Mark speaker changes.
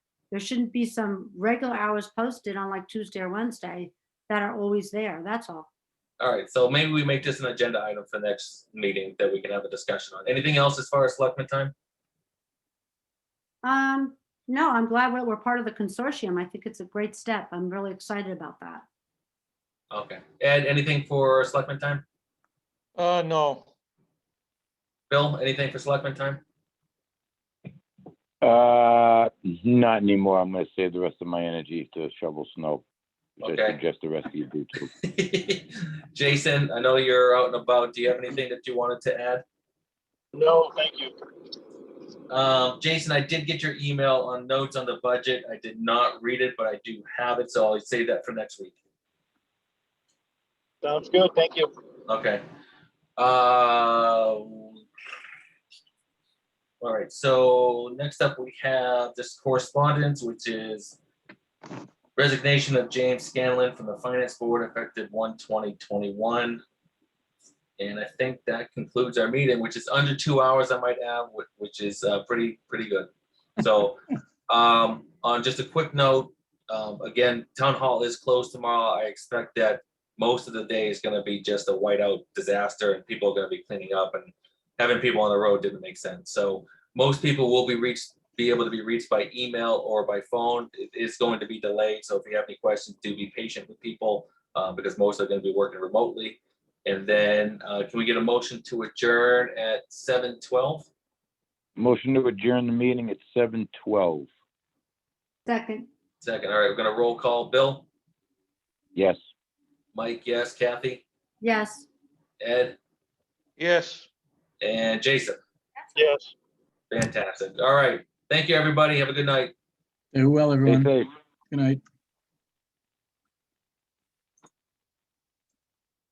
Speaker 1: there shouldn't be some regular hours posted on like Tuesday or Wednesday that are always there. That's all.
Speaker 2: All right, so maybe we make this an agenda item for next meeting that we can have a discussion on. Anything else as far as selectmen time?
Speaker 1: Um, no, I'm glad we're, we're part of the consortium. I think it's a great step. I'm really excited about that.
Speaker 2: Okay, Ed, anything for selectmen time?
Speaker 3: Uh, no,
Speaker 2: Bill, anything for selectmen time?
Speaker 4: Uh, not anymore. I'm gonna save the rest of my energy to shovel snow. Which I
Speaker 2: Okay.
Speaker 4: suggest the rest of you do too.
Speaker 2: Jason, I know you're out and about. Do you have anything that you wanted to add?
Speaker 5: No, thank you.
Speaker 2: Um, Jason, I did get your email on notes on the budget. I did not read it, but I do have it, so I'll save that for next week.
Speaker 5: Sounds good. Thank you.
Speaker 2: Okay. Uh, All right, so next up we have this correspondence, which is resignation of James Scanlon from the Finance Board effective one twenty twenty-one. And I think that concludes our meeting, which is under two hours, I might add, whi- which is uh, pretty, pretty good. So um, on just a quick note, um, again, Town Hall is closed tomorrow. I expect that most of the day is gonna be just a whiteout disaster and people are gonna be cleaning up and having people on the road didn't make sense. So most people will be reached, be able to be reached by email or by phone. It is going to be delayed, so if you have any questions, do be patient with people uh, because most are gonna be working remotely. And then, uh, can we get a motion to adjourn at seven twelve?
Speaker 4: Motion to adjourn the meeting at seven twelve.
Speaker 1: Second,
Speaker 2: Second, all right, we're gonna roll call. Bill,
Speaker 4: Yes.
Speaker 2: Mike, yes, Kathy,
Speaker 1: yes.
Speaker 2: Ed,
Speaker 3: yes.
Speaker 2: and Jason.
Speaker 5: Yes.
Speaker 2: Fantastic. All right. Thank you, everybody. Have a good night.
Speaker 6: Stay well,
Speaker 4: Stay
Speaker 6: everyone.
Speaker 4: safe.
Speaker 6: Good night.